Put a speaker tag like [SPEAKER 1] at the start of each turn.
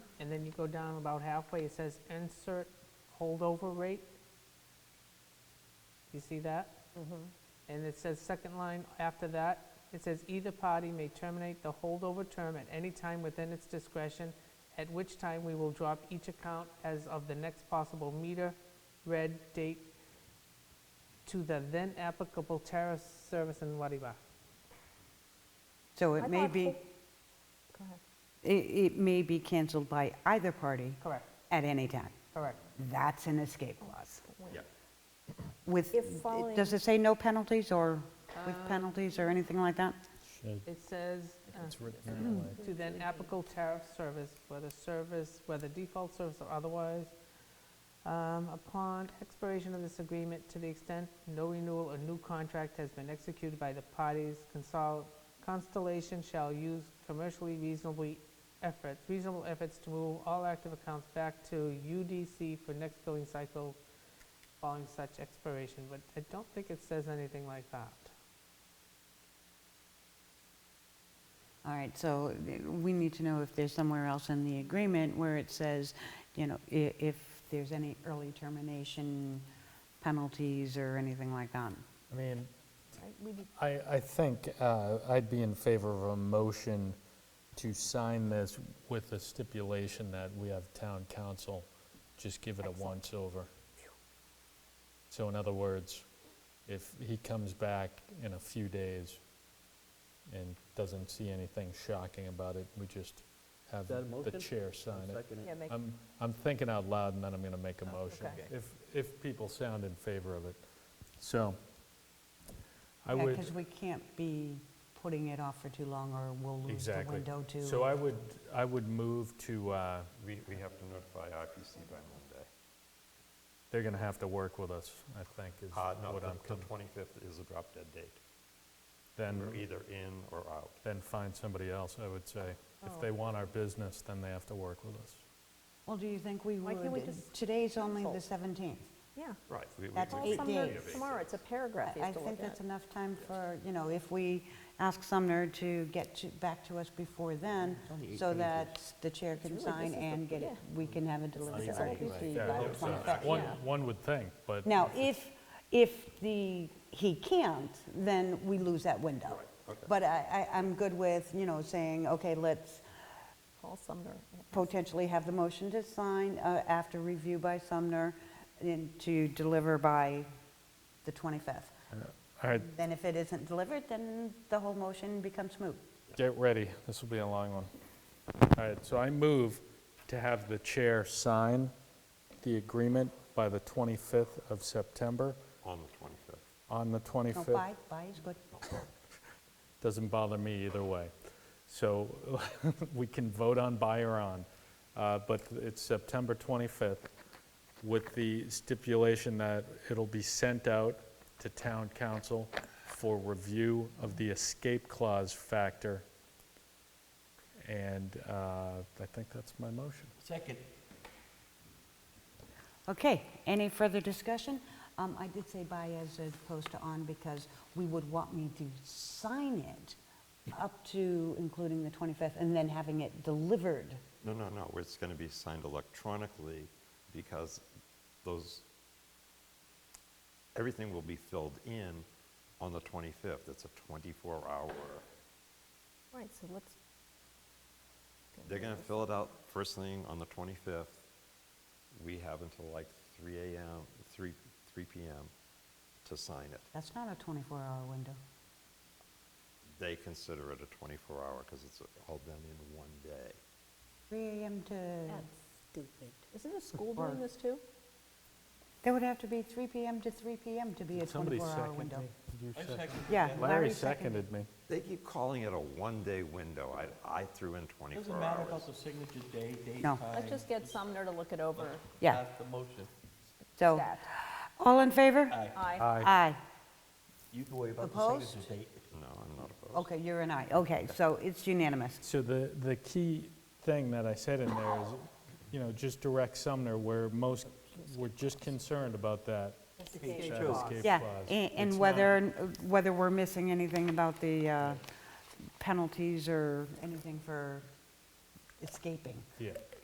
[SPEAKER 1] and then you go down about halfway, it says insert holdover rate. You see that? And it says, second line after that, it says, either party may terminate the holdover term at any time within its discretion, at which time we will drop each account as of the next possible meter read date to the then applicable tariff service in Wariba.
[SPEAKER 2] So
[SPEAKER 3] I
[SPEAKER 2] it may
[SPEAKER 3] thought
[SPEAKER 2] be,
[SPEAKER 3] ho- Go ahead.
[SPEAKER 2] it, it may be canceled by either party
[SPEAKER 1] Correct,
[SPEAKER 2] at any time.
[SPEAKER 1] correct.
[SPEAKER 2] That's an escape clause.
[SPEAKER 4] Yeah.
[SPEAKER 2] With,
[SPEAKER 3] If Uh,
[SPEAKER 2] does
[SPEAKER 3] following-
[SPEAKER 2] it say no penalties or with penalties or anything like that?
[SPEAKER 5] Should,
[SPEAKER 1] It says, uh,
[SPEAKER 5] it's written that way.
[SPEAKER 1] to then applicable tariff service, whether service, whether default service or otherwise. Um, Upon expiration of this agreement, to the extent no renewal or new contract has been executed by the parties, consol- Constellation shall use commercially reasonably efforts, reasonable efforts to move all active accounts back to UDC for next billing cycle following such expiration, but I don't think it says anything like that.
[SPEAKER 2] All right, so th- we need to know if there's somewhere else in the agreement where it says, you know, i- if there's any early termination penalties or anything like that.
[SPEAKER 5] I mean,
[SPEAKER 3] Right, we did-
[SPEAKER 5] I, I think uh, I'd be in favor of a motion to sign this with the stipulation that we have town council just give it a once-over. So in other words, if he comes back in a few days and doesn't see anything shocking about it, we just have
[SPEAKER 4] that a
[SPEAKER 5] the
[SPEAKER 4] motion?
[SPEAKER 5] chair sign it.
[SPEAKER 4] Second
[SPEAKER 3] Yeah, make,
[SPEAKER 5] I'm, I'm thinking out loud, and then I'm going to make a
[SPEAKER 2] Oh,
[SPEAKER 5] motion,
[SPEAKER 1] okay.
[SPEAKER 5] if, if people sound in favor of it. So, I would...
[SPEAKER 2] Because we can't be putting it off for too long or we'll lose the
[SPEAKER 5] Exactly.
[SPEAKER 2] window to.
[SPEAKER 5] So I would, I would move to, uh,
[SPEAKER 6] We, we have to notify RPC by Monday.
[SPEAKER 5] they're going to have to work with us, I think, is
[SPEAKER 6] Uh, no,
[SPEAKER 5] what
[SPEAKER 6] the-
[SPEAKER 5] I'm,
[SPEAKER 6] the
[SPEAKER 5] con-
[SPEAKER 6] 25th is a drop dead date. We're
[SPEAKER 3] Mm-hmm.
[SPEAKER 5] then,
[SPEAKER 6] either in or out.
[SPEAKER 5] then find somebody else, I would say. If
[SPEAKER 2] Oh.
[SPEAKER 5] they want our business, then they have to work with us.
[SPEAKER 2] Well, do you think we
[SPEAKER 3] Why
[SPEAKER 2] would?
[SPEAKER 3] can't we just
[SPEAKER 2] Today's only the
[SPEAKER 3] cancel?
[SPEAKER 2] 17th.
[SPEAKER 3] yeah.
[SPEAKER 6] Right. we- we-
[SPEAKER 2] That's
[SPEAKER 6] we-
[SPEAKER 3] Well,
[SPEAKER 2] eight
[SPEAKER 3] from
[SPEAKER 6] we-
[SPEAKER 3] the-
[SPEAKER 2] days.
[SPEAKER 6] we-
[SPEAKER 3] Tomorrow, it's a paragraph you
[SPEAKER 2] I I
[SPEAKER 3] have to
[SPEAKER 2] think
[SPEAKER 3] look at.
[SPEAKER 2] that's enough time for, you know, if we ask Sumner to get to- back to us before then, so that the chair can
[SPEAKER 3] It's really-
[SPEAKER 2] sign
[SPEAKER 3] this is the-
[SPEAKER 2] and get, it-
[SPEAKER 3] yeah.
[SPEAKER 2] we can have it delivered to
[SPEAKER 3] It's only
[SPEAKER 2] RPC
[SPEAKER 3] right.
[SPEAKER 2] by the
[SPEAKER 3] Yeah.
[SPEAKER 2] 25th.
[SPEAKER 5] Uh, One,
[SPEAKER 3] Yeah.
[SPEAKER 5] one would think, but,
[SPEAKER 2] Now, if, if the, he can't, then we lose that window. But I, I- I'm good with, you know, saying, okay, let's
[SPEAKER 3] Call Sumner. yeah.
[SPEAKER 2] potentially have the motion to sign uh, after review by Sumner and to deliver by the 25th.
[SPEAKER 5] all right,
[SPEAKER 2] Then if it isn't delivered, then the whole motion becomes moot.
[SPEAKER 5] Get ready, this will be a long one. All right, so I move to have the chair sign the agreement by the 25th of September,
[SPEAKER 6] On the 25th.
[SPEAKER 5] on the
[SPEAKER 2] No,
[SPEAKER 5] 25th.
[SPEAKER 2] bye, bye is good.
[SPEAKER 5] Doesn't bother me either way. So we can vote on buy or on, uh, but it's September 25th with the stipulation that it'll be sent out to town council for review of the escape clause factor. And uh, I think that's my motion.
[SPEAKER 4] Second.
[SPEAKER 2] Okay, any further discussion? Um, I did say bye as opposed to on because we would want me to sign it up to including the 25th and then having it delivered.
[SPEAKER 6] No, no, no, it's going to be signed electronically because those, everything will be filled in on the 25th. It's a 24-hour.
[SPEAKER 3] Right, so let's,
[SPEAKER 6] They're going to fill it out first thing on the 25th. We have until like 3 AM, 3, 3 PM to sign it.
[SPEAKER 2] That's not a 24-hour window.
[SPEAKER 6] They consider it a 24-hour because it's all done in one day.
[SPEAKER 2] 3 AM to,
[SPEAKER 7] Stupid.
[SPEAKER 3] isn't the school doing this too?
[SPEAKER 2] there would have to be 3 PM to 3 PM to be a 24-hour window. Yeah,
[SPEAKER 5] Larry seconded me.
[SPEAKER 6] They keep calling it a one-day window. I, I threw in 24 hours.
[SPEAKER 4] Doesn't matter about the signature day, date,
[SPEAKER 2] No.
[SPEAKER 4] time.
[SPEAKER 3] Let's just get Sumner to look it over.
[SPEAKER 2] Yeah,
[SPEAKER 4] Pass the motion.
[SPEAKER 2] so,
[SPEAKER 3] That.
[SPEAKER 2] all in favor?
[SPEAKER 6] Uh,
[SPEAKER 3] Aye.
[SPEAKER 2] Aye.
[SPEAKER 4] You can worry about the
[SPEAKER 2] Opposed?
[SPEAKER 4] signature date.
[SPEAKER 6] No, I'm not opposed.
[SPEAKER 2] Okay, you're an aye, okay, so it's unanimous.
[SPEAKER 5] So the, the key thing that I said in there is, you know, just direct Sumner, where most, we're just concerned about that. that escape
[SPEAKER 2] Yeah,
[SPEAKER 5] clause.
[SPEAKER 2] a- and
[SPEAKER 5] It's
[SPEAKER 2] whether, whether we're missing anything about the uh, penalties or anything for escaping.
[SPEAKER 5] not- Yeah.